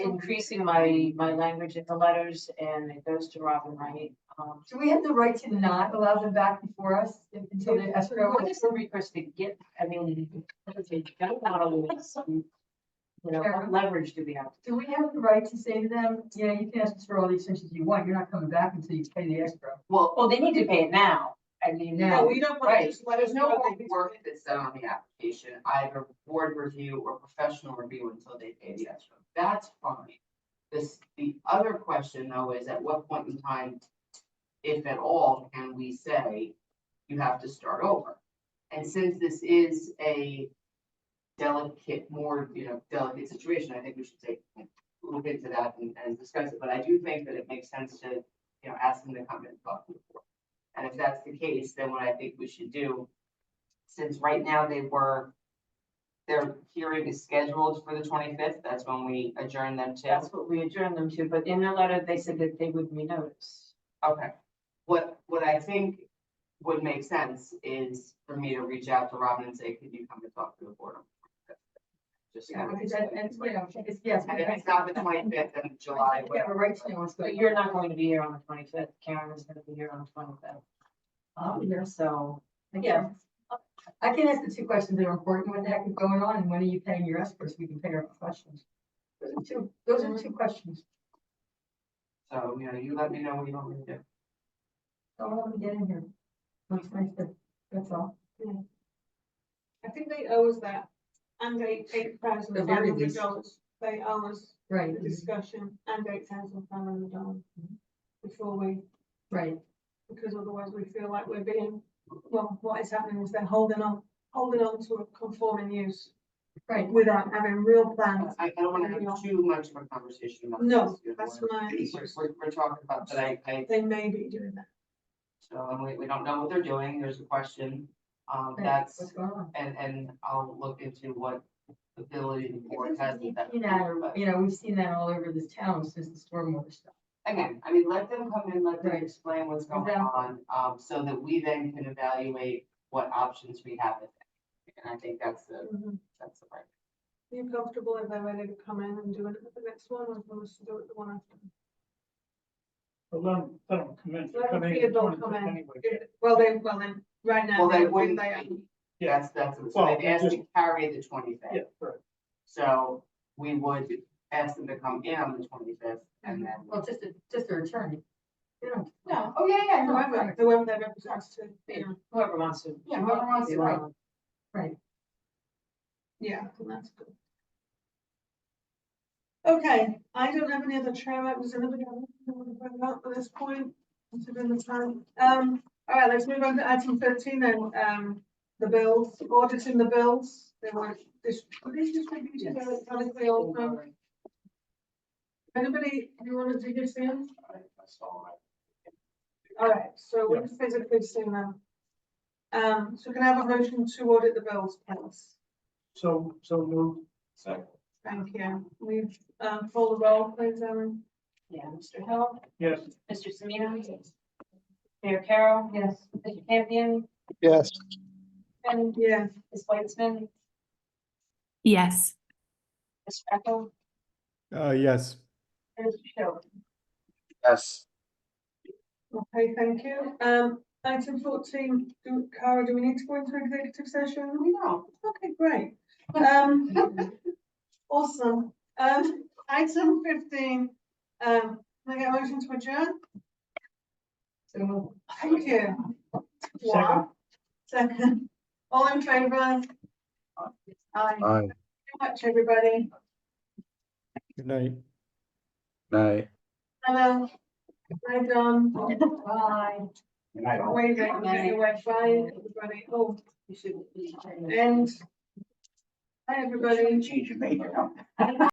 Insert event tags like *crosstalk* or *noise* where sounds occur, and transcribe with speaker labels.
Speaker 1: increasing my, my language in the letters and it goes to Robin Wright. Um,
Speaker 2: Do we have the right to not allow them back before us if- until the escrow?
Speaker 1: What is the request to get, I mean, I don't want to lose. You know,
Speaker 2: Sure.
Speaker 1: what leverage do we have?
Speaker 2: Do we have the right to say to them, yeah, you can ask us for all the extensions you want, you're not coming back until you pay the escrow?
Speaker 1: Well, oh, they need to pay it now. I mean,
Speaker 2: Now.
Speaker 3: No,
Speaker 1: now,
Speaker 3: we don't want to
Speaker 4: Right,
Speaker 3: just let us
Speaker 4: there's no
Speaker 3: know.
Speaker 4: more
Speaker 3: that we-
Speaker 4: work that's done on the application, either board review or professional review until they pay the escrow. That's fine. This, the other question though is at what point in time, if at all, can we say you have to start over? And since this is a delicate, more, you know, delicate situation, I think we should take a little bit to that and, and discuss it. But I do think that it makes sense to, you know, ask them to come and talk to the board. And if that's the case, then what I think we should do, since right now they were, their hearing is scheduled for the twenty-fifth, that's when we adjourn them to.
Speaker 1: that's what we adjourned them to, but in their letter, they said that they would renotice.
Speaker 4: Okay. What, what I think would make sense is for me to reach out to Robin and say, could you come and talk to the board? on the 25th?" Just.
Speaker 2: Yeah,
Speaker 4: kind of-
Speaker 2: because that, that's, you know, it's, yes.
Speaker 4: And if it's not the twenty-fifth, then July,
Speaker 2: We have a
Speaker 4: whatever.
Speaker 2: right to know what's
Speaker 1: But
Speaker 2: going
Speaker 1: you're
Speaker 2: on.
Speaker 1: not going to be here on the twenty-fifth, Karen is gonna be here on the twenty-fifth.
Speaker 2: I'll be here.
Speaker 1: Um, so,
Speaker 2: Yeah. I can ask the two questions that are important, what the heck is going on, and when are you paying your escrow so we can pay our questions? Those are two, those are two questions.
Speaker 4: So, you know, you let me know what you want me to do.
Speaker 2: Don't let them get in here. Looks nice, but that's all.
Speaker 3: I think they owe us that, and eight, eight thousand
Speaker 2: The
Speaker 3: five
Speaker 2: very
Speaker 3: hundred
Speaker 2: least.
Speaker 3: dollars. They owe us
Speaker 2: Right,
Speaker 3: the discussion and eight thousand five hundred dollars before we,
Speaker 2: right.
Speaker 3: because otherwise we feel like we're being, well, what is happening is they're holding on, holding on to a conforming use
Speaker 2: Right.
Speaker 3: without having real
Speaker 2: Um,
Speaker 3: plans.
Speaker 4: I, I don't wanna have too much of a conversation about.
Speaker 3: No,
Speaker 4: this, you know,
Speaker 3: that's
Speaker 4: we're-
Speaker 3: my,
Speaker 4: We're, we're- we're talking about, but I, I
Speaker 3: they may be doing that.
Speaker 4: So and we, we don't know what they're doing, there's a question, um,
Speaker 2: right, What's
Speaker 4: that's,
Speaker 2: going on?
Speaker 4: and, and I'll look into what ability the board
Speaker 2: We've
Speaker 4: has with
Speaker 2: seen that,
Speaker 4: that. computer, but
Speaker 2: You know, we've seen that all over this town since the stormwater stuff.
Speaker 4: Again, I mean, let them come in, let them
Speaker 2: Right.
Speaker 4: explain what's going
Speaker 2: Exactly.
Speaker 4: on, um, so that we then can evaluate what options we have. with it. And I think that's the,
Speaker 3: Mhm.
Speaker 4: that's the right.
Speaker 3: Are you comfortable if they're ready to come in and do it at the next one, or do you want us to do it the one after?
Speaker 5: But let them, let them come in.
Speaker 3: Let 'em
Speaker 5: Come in
Speaker 3: see it, don't
Speaker 5: and
Speaker 3: come in.
Speaker 5: anyway.
Speaker 3: If- Well, they, well, then, right now.
Speaker 4: Well, they
Speaker 3: would think
Speaker 4: wouldn't,
Speaker 3: they
Speaker 4: be-
Speaker 5: Yeah.
Speaker 4: that's, that's, so
Speaker 5: Well,
Speaker 4: they've asked
Speaker 5: just-
Speaker 4: to carry the twenty-fifth.
Speaker 5: Yeah, right.
Speaker 4: So we would ask them to come in on the twenty-fifth and then.
Speaker 2: Well, just, a- just their attorney. You know,
Speaker 4: No, oh, yeah, yeah,
Speaker 3: are- Whoever, whoever they represent to, you know,
Speaker 1: whoever wants to.
Speaker 4: Yeah, whoever wants to, right.
Speaker 3: yeah, I think that's good. Okay, I don't have any other chair items, anybody else want to bring up at this point? Considering the time, um, all right, let's move on to item thirteen then, um, the bills, auditing the bills. They were, this, these distributed
Speaker 1: Yes.
Speaker 3: electronically also. Anybody, you want to do this in? All right, so we've physically seen them. Um, so can I have a motion to audit the bills, please?
Speaker 5: So, so move.
Speaker 3: Thank you. We've, um, full the roll, please, Erin.
Speaker 1: Yeah, Mr. Hill,
Speaker 5: Yes,
Speaker 1: Mr. Semino. Mayor Carroll,
Speaker 2: Yes.
Speaker 1: Mr. Campion,
Speaker 6: Yes,
Speaker 1: and
Speaker 3: Yes.
Speaker 1: Ms. Weitzman,
Speaker 7: Yes,
Speaker 1: Mr. Echo,
Speaker 8: Uh, yes.
Speaker 1: and Mr. Schiller.
Speaker 6: yes,
Speaker 3: Okay, thank you. Um, item fourteen, do, Cara, do we need to go into executive session? We don't. Okay, great. Um, awesome. Um, item fifteen, um, can I get a motion to adjourn?
Speaker 2: So,
Speaker 3: Thank you. Wow. Second. All in favour? Aye.
Speaker 6: aye,
Speaker 3: much, everybody.
Speaker 8: Good night.
Speaker 6: aye.
Speaker 3: Hello. Hi, Don.
Speaker 2: bye.
Speaker 3: Waving, getting away. Bye, everybody. Oh,
Speaker 1: You should.
Speaker 4: *laughs*
Speaker 3: and. Hi, everybody.